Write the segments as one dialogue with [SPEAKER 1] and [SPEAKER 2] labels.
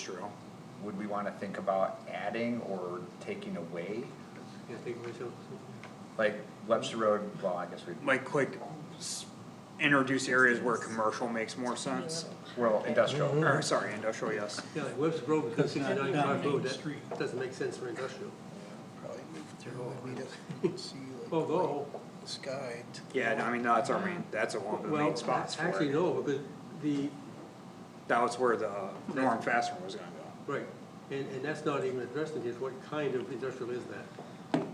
[SPEAKER 1] True.
[SPEAKER 2] would we wanna think about adding or taking away?
[SPEAKER 3] Yeah, take away some.
[SPEAKER 2] Like Webster Road, well, I guess we,
[SPEAKER 1] Like, like, s- introduce areas where commercial makes more sense,
[SPEAKER 2] well, industrial,
[SPEAKER 1] or, sorry, industrial, yes.
[SPEAKER 3] Yeah, like Webster Road becomes
[SPEAKER 4] That's not
[SPEAKER 3] sixty-nine
[SPEAKER 4] down
[SPEAKER 3] Park
[SPEAKER 4] Main
[SPEAKER 3] Road, that
[SPEAKER 4] Street.
[SPEAKER 3] doesn't make sense for industrial.
[SPEAKER 4] Probably move through and we just see like.
[SPEAKER 5] Oh,
[SPEAKER 3] Although,
[SPEAKER 4] the Sky. to-
[SPEAKER 1] Yeah, and I mean, that's our main, that's one of the
[SPEAKER 3] well,
[SPEAKER 1] main spots for
[SPEAKER 3] actually,
[SPEAKER 1] it.
[SPEAKER 3] no, because the,
[SPEAKER 1] That was where the Norm Fastener was gonna
[SPEAKER 3] right, and, and that's not even addressed in here, what kind of industrial is that?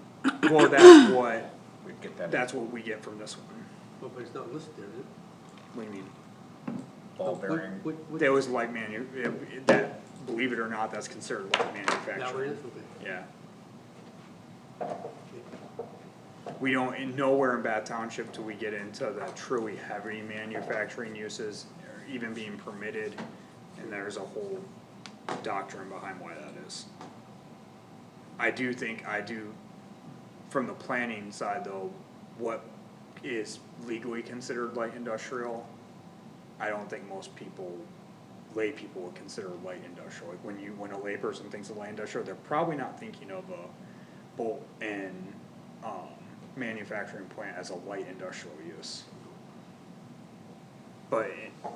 [SPEAKER 1] go. Well, that's what,
[SPEAKER 2] we'd get that
[SPEAKER 1] that's what we get from this one,
[SPEAKER 3] Well, But it's not listed there, is it?
[SPEAKER 1] we need,
[SPEAKER 2] ball
[SPEAKER 3] What-
[SPEAKER 2] bearing.
[SPEAKER 3] what- what-
[SPEAKER 1] that was light manu, it- that, believe it or not, that's considered light
[SPEAKER 3] That one
[SPEAKER 1] manufacturing.
[SPEAKER 3] is, okay.
[SPEAKER 1] Yeah. We don't, in nowhere in Bath Township do we get into the truly heavy manufacturing uses or even being permitted. And there's a whole doctrine behind why that is. I do think, I do, from the planning side though, what is legally considered light industrial, I don't think most people, lay people would consider light industrial. Like when you, when a layperson thinks of light industrial, they're probably not thinking of a bolt and, um, manufacturing plant as a light industrial use. But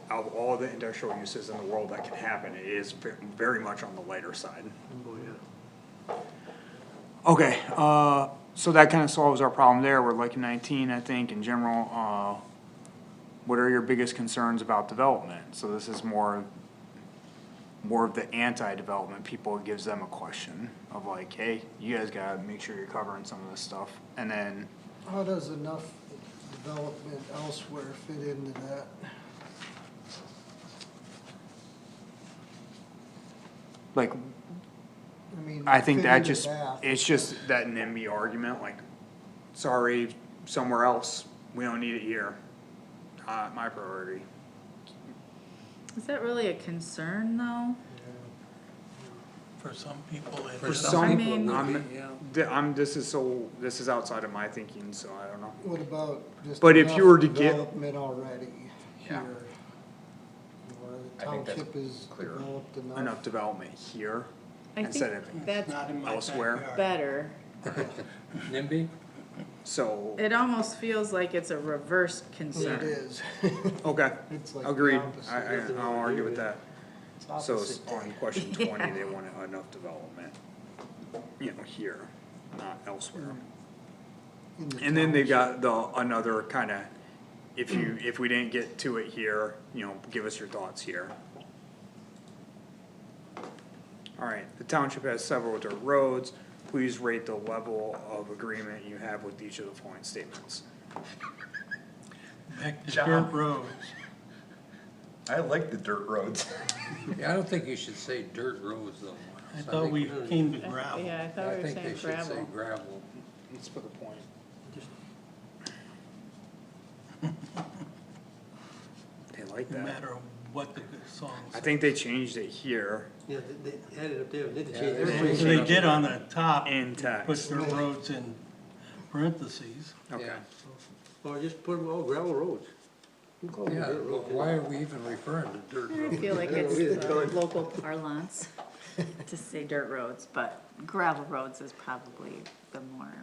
[SPEAKER 1] out of all the industrial uses in the world that can happen, it is ve- very much on the lighter side.
[SPEAKER 3] Oh, yeah.
[SPEAKER 1] Okay, uh, so that kinda solves our problem there, we're like nineteen, I think, in general, uh, what are your biggest concerns about development? So this is more, more of the anti-development, people, it gives them a question of like, hey, you guys gotta make sure you're covering some of this stuff, and then,
[SPEAKER 4] How does enough development elsewhere fit into that?
[SPEAKER 1] like,
[SPEAKER 4] I mean.
[SPEAKER 1] I think
[SPEAKER 4] fit
[SPEAKER 1] that
[SPEAKER 4] into
[SPEAKER 1] just, it's just that NIMBY argument, like, sorry, somewhere else, we don't need it here. Uh, my priority,
[SPEAKER 6] Is that really a concern though?
[SPEAKER 5] For some people, it
[SPEAKER 1] for
[SPEAKER 5] is.
[SPEAKER 6] I
[SPEAKER 1] some,
[SPEAKER 6] mean-
[SPEAKER 1] I'm,
[SPEAKER 5] Yeah.
[SPEAKER 1] Th- I'm, this is so, this is outside of my thinking, so I don't know.
[SPEAKER 4] What about just.
[SPEAKER 1] But if you
[SPEAKER 4] enough
[SPEAKER 1] were to get-
[SPEAKER 4] Development already
[SPEAKER 1] Yeah.
[SPEAKER 4] here. Where the
[SPEAKER 2] I think that's
[SPEAKER 4] township is
[SPEAKER 2] clear.
[SPEAKER 4] developed
[SPEAKER 1] Enough development here
[SPEAKER 6] I
[SPEAKER 1] instead
[SPEAKER 6] think
[SPEAKER 1] of,
[SPEAKER 6] that's
[SPEAKER 5] Not in my
[SPEAKER 1] elsewhere.
[SPEAKER 5] backyard.
[SPEAKER 6] better.
[SPEAKER 3] NIMBY?
[SPEAKER 1] so,
[SPEAKER 6] It almost feels like it's a reverse
[SPEAKER 4] It
[SPEAKER 6] concern.
[SPEAKER 4] is.
[SPEAKER 1] okay,
[SPEAKER 4] It's like the
[SPEAKER 1] agreed,
[SPEAKER 4] opposite.
[SPEAKER 1] I, I,
[SPEAKER 3] Nothing
[SPEAKER 1] I'll
[SPEAKER 3] wrong
[SPEAKER 1] argue
[SPEAKER 3] with
[SPEAKER 1] with that.
[SPEAKER 4] It's
[SPEAKER 1] So
[SPEAKER 4] opposite
[SPEAKER 1] it's on question twenty, they want enough development, you know, here, not elsewhere.
[SPEAKER 4] Mm-hmm. in the
[SPEAKER 1] And then they've
[SPEAKER 4] township.
[SPEAKER 1] got the, another kinda, if you, if we didn't get to it here, you know, give us your thoughts here. Alright, the township has several of their roads, please rate the level of agreement you have with each of the following statements.
[SPEAKER 5] Back to
[SPEAKER 2] John.
[SPEAKER 5] dirt roads.
[SPEAKER 2] I like the dirt roads.
[SPEAKER 7] Yeah, I don't think you should say dirt roads though.
[SPEAKER 5] I
[SPEAKER 7] Miles.
[SPEAKER 5] thought
[SPEAKER 7] think-
[SPEAKER 5] we came to gravel.
[SPEAKER 6] Yeah, I thought we
[SPEAKER 7] I
[SPEAKER 6] were
[SPEAKER 7] think they
[SPEAKER 6] saying
[SPEAKER 7] should say
[SPEAKER 6] gravel.
[SPEAKER 7] gravel.
[SPEAKER 1] Let's put a point. They like
[SPEAKER 5] No
[SPEAKER 1] that,
[SPEAKER 5] matter what the song
[SPEAKER 1] I
[SPEAKER 5] says.
[SPEAKER 1] think they changed it here
[SPEAKER 3] Yeah, they, they added up there, they did
[SPEAKER 7] Yeah,
[SPEAKER 3] change
[SPEAKER 7] they
[SPEAKER 3] everything.
[SPEAKER 7] changed
[SPEAKER 5] So They did on the top,
[SPEAKER 1] in
[SPEAKER 5] put
[SPEAKER 1] text,
[SPEAKER 5] their roads in parentheses.
[SPEAKER 1] okay,
[SPEAKER 7] Yeah.
[SPEAKER 3] Or just put them all gravel roads. You call them
[SPEAKER 7] Yeah,
[SPEAKER 3] dirt
[SPEAKER 7] but
[SPEAKER 3] roads,
[SPEAKER 7] why are we even referring to dirt
[SPEAKER 6] I
[SPEAKER 7] roads?
[SPEAKER 6] feel like
[SPEAKER 3] Yeah,
[SPEAKER 6] it's
[SPEAKER 3] we did
[SPEAKER 6] the
[SPEAKER 3] colours.
[SPEAKER 6] local parlance to say dirt roads, but gravel roads is probably the more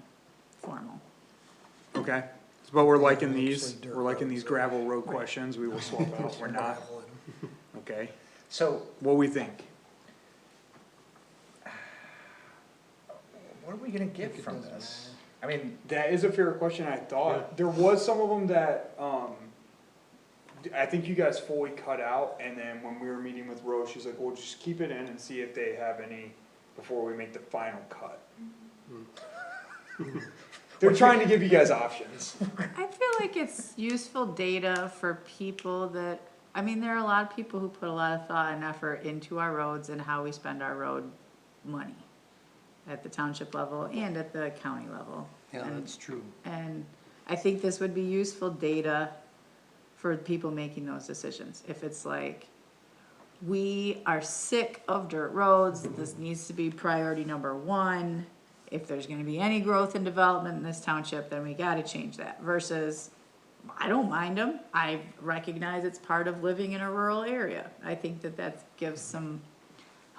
[SPEAKER 6] formal.
[SPEAKER 1] okay. But we're liking
[SPEAKER 4] Actually,
[SPEAKER 1] these,
[SPEAKER 4] dirt
[SPEAKER 1] we're liking these
[SPEAKER 4] roads.
[SPEAKER 1] gravel road questions, we will swap out, we're not, okay?
[SPEAKER 2] So
[SPEAKER 1] What we think?
[SPEAKER 2] what are we gonna get
[SPEAKER 4] Think it
[SPEAKER 2] from
[SPEAKER 4] doesn't
[SPEAKER 2] this? I mean,
[SPEAKER 1] That is a fair question, I thought, there was some of them that, um, d- I think you guys fully cut out, and then when we were meeting with Rose, she's like, well, just keep it in and see if they have any before we make the final cut.
[SPEAKER 4] Mm-hmm.
[SPEAKER 1] They're trying to give you guys options.
[SPEAKER 6] I feel like it's useful data for people that, I mean, there are a lot of people who put a lot of thought and effort into our roads and how we spend our road money at the township level and at the county level.
[SPEAKER 7] Yeah,
[SPEAKER 6] And-
[SPEAKER 7] that's true.
[SPEAKER 6] And I think this would be useful data for people making those decisions. If it's like, we are sick of dirt roads, this needs to be priority number one. If there's gonna be any growth and development in this township, then we gotta change that versus, I don't mind them. I recognize it's part of living in a rural area. I think that that gives some